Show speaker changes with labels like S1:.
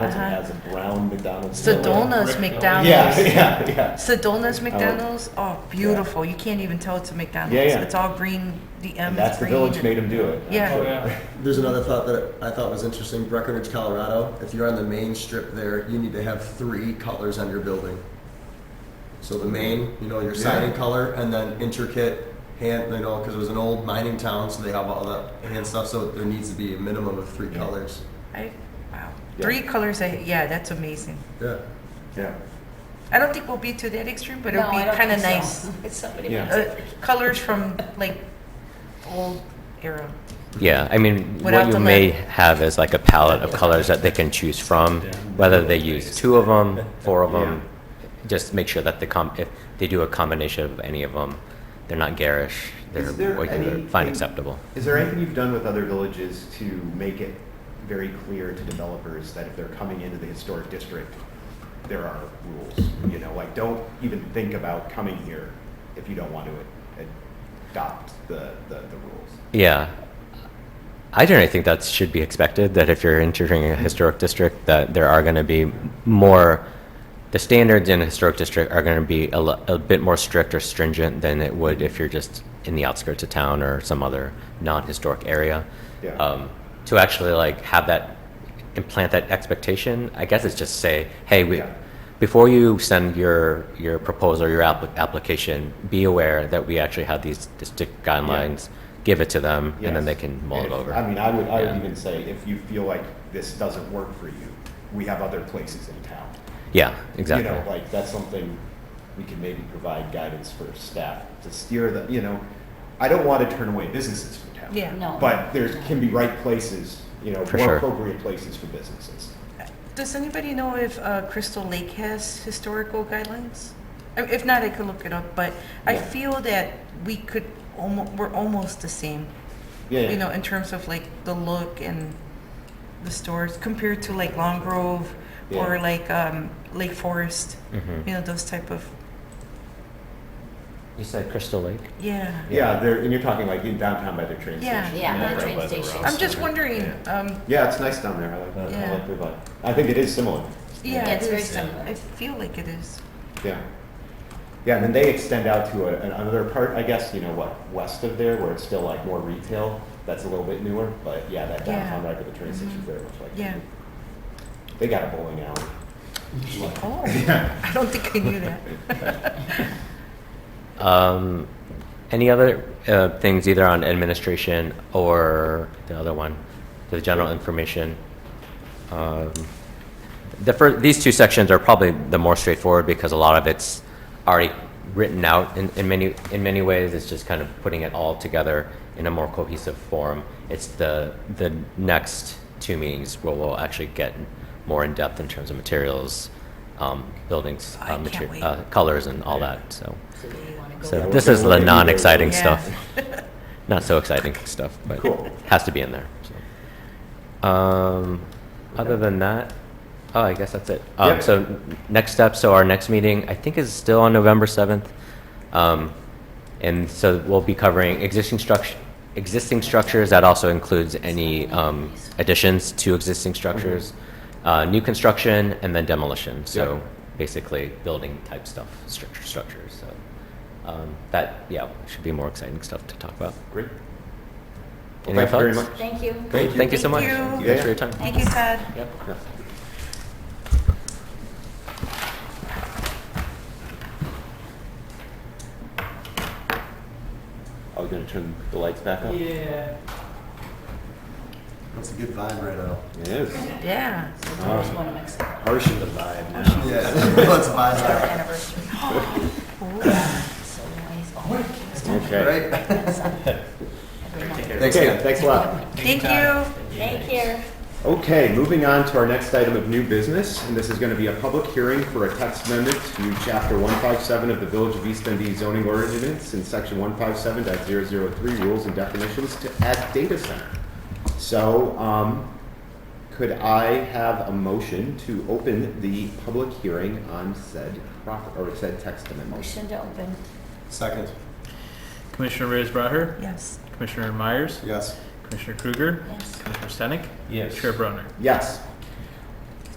S1: McDonald's and
S2: Uh-huh.
S1: has a brown McDonald's.
S2: Sedona's
S3: Rick-
S2: McDonald's.
S1: Yeah, yeah, yeah.
S2: Sedona's McDonald's, oh, beautiful. You can't even tell it's a McDonald's.
S1: Yeah, yeah.
S2: It's all green, the M
S1: And
S2: is
S1: that's the
S2: green.
S1: village made him do it.
S2: Yeah.
S3: Oh, yeah.
S4: There's another thought that I thought was interesting. Breckenridge, Colorado. If you're on the main strip there, you need to have three colors on your building. So the main, you know, your siding color, and then intricate hand, you know, because it was an old mining town, so they have all that hand stuff. So there needs to be a minimum of three
S1: Yeah.
S4: colors.
S2: I, wow.
S1: Yeah.
S2: Three colors, I- yeah, that's amazing.
S4: Yeah.
S1: Yeah.
S2: I don't think we'll be to that extreme, but it'll
S5: No,
S2: be
S5: I don't
S2: kind of
S5: think
S2: nice.
S5: so. It's somebody
S1: Yeah.
S5: makes
S2: Uh,
S5: it.
S2: colors from like old era.
S6: Yeah, I mean,
S2: Without
S6: what
S2: the
S6: you may
S2: lid.
S6: have is like a palette of colors that they can choose from, whether they use two of them, four of them. Just make sure that the com, if they do a combination of any of them, they're not garish, they're
S7: Is there
S6: what you would
S7: anything-
S6: find acceptable.
S7: Is there anything you've done with other villages to make it very clear to developers that if they're coming into the historic district, there are rules? You know, like, don't even think about coming here if you don't want to adopt the, the, the rules.
S6: Yeah. I generally think that should be expected, that if you're entering a historic district, that there are going to be more, the standards in a historic district are going to be a, lo- a bit more strict or stringent than it would if you're just in the outskirts of town or some other non-historic area.
S7: Yeah.
S6: Um, to actually like have that, implant that expectation, I guess it's just say, hey, we,
S7: Yeah.
S6: before you send your, your proposal, your app- application, be aware that we actually have these distinct guidelines. Give it to them, and then they
S7: Yes.
S6: can mull it
S7: And if-
S6: over.
S7: I mean, I would, I would
S6: Yeah.
S7: even say, if you feel like this doesn't work for you, we have other places in town.
S6: Yeah,
S7: You know,
S6: exactly.
S7: like, that's something we can maybe provide guidance for staff to steer the, you know, I don't want to turn away businesses from town.
S2: Yeah.
S5: No.
S7: But there can be right places, you know,
S6: For
S7: more
S6: sure.
S7: appropriate places for businesses.
S2: Does anybody know if uh, Crystal Lake has historical guidelines? I- If not, I could look it up, but I
S7: Yeah.
S2: feel that we could, almo- we're almost the same,
S7: Yeah,
S2: you know, in terms of like the look and the stores compared to like Long Grove or
S7: Yeah.
S2: like um, Lake Forest,
S6: Mhm.
S2: you know, those type of,
S6: You said Crystal Lake?
S2: yeah.
S7: yeah, there, and you're talking like in downtown by the train
S2: Yeah.
S7: station.
S5: Yeah, by the
S7: right
S5: train
S7: by
S5: station.
S7: railroad.
S2: I'm just wondering, um,
S7: Yeah, it's nice down there, I like, I
S2: Yeah.
S7: like the vibe. I think it is similar.
S2: yeah.
S5: Yeah,
S2: it
S5: it's very
S2: is.
S5: similar.
S2: uh, I feel like it is.
S7: Yeah. Yeah, and then they extend out to a, another part, I guess, you know, what, west of there, where it's still like more retail, that's a little bit newer, but yeah, that
S2: Yeah. Mm-hmm.
S7: downtown right by the train station very much like.
S2: Yeah.
S7: They got a bowling alley.
S2: Oh, I don't think I knew that.
S6: Um, any other uh, things either on administration or the other one, the general information? Um, the first, these two sections are probably the more straightforward because a lot of it's already written out in, in many in many ways. It's just kind of putting it all together in a more cohesive form. It's the the next two meetings where we'll actually get more in depth in terms of materials, um, buildings,
S2: I
S6: uh,
S2: can't wait.
S6: uh, colors, and all that. So.
S5: So do you wanna go
S6: So
S5: there?
S6: this is the non-exciting
S2: Yeah.
S6: stuff, not so exciting stuff, but
S7: Cool.
S6: has to be in there. so. Um, other than that, oh, I guess that's it. Um,
S7: Yep.
S6: So n- next step. So our next meeting, I think, is still on November seventh, um, and so we'll be covering existing structure. Existing structures, that also includes any um, additions to existing structures, uh, new construction, and then demolition. So
S7: Mm-hmm. Yep.
S6: basically building type stuff, structure structures. So um, that yeah should be more exciting stuff to talk about.
S7: Great.
S6: Any
S7: Well, thank you very
S6: thoughts?
S7: much.
S5: Thank you.
S6: Great, thank you so much.
S2: Thank you. Thank
S7: you.
S6: Thanks for your time.
S2: Thank you, Todd.
S6: Yep.
S7: Yeah.
S1: Are we gonna turn the lights back up?
S3: Yeah.
S4: That's a good vibe right now.
S1: It is.
S2: Yeah.
S5: So there's one of Mexico.
S1: Harshing the vibe now.
S4: Yeah. Let's vibe
S5: Our
S4: out,
S5: anniversary. So nice. Oh, it's done.
S1: Okay.
S4: right?
S5: That's done. Every month.
S4: Thanks,
S7: Okay,
S4: Ken.
S7: thanks a lot.
S2: Thank you.
S5: Thank you.
S7: Okay, moving on to our next item of new business, and this is going to be a public hearing for a text amendment to Chapter 157 of the Village of East Dundee zoning ordinance in Section 157.003 rules and definitions to add data center. So, um, could I have a motion to open the public hearing on said prop, or said text amendment?
S5: Motion to open.
S4: Second.
S3: Commissioner Reyes Braher,
S2: Yes.
S3: Commissioner Myers,
S4: Yes.
S3: Commissioner Kruger,
S5: Yes.
S3: Commissioner Stenick,
S1: Yes.
S3: Chair Brunner.
S7: Yes.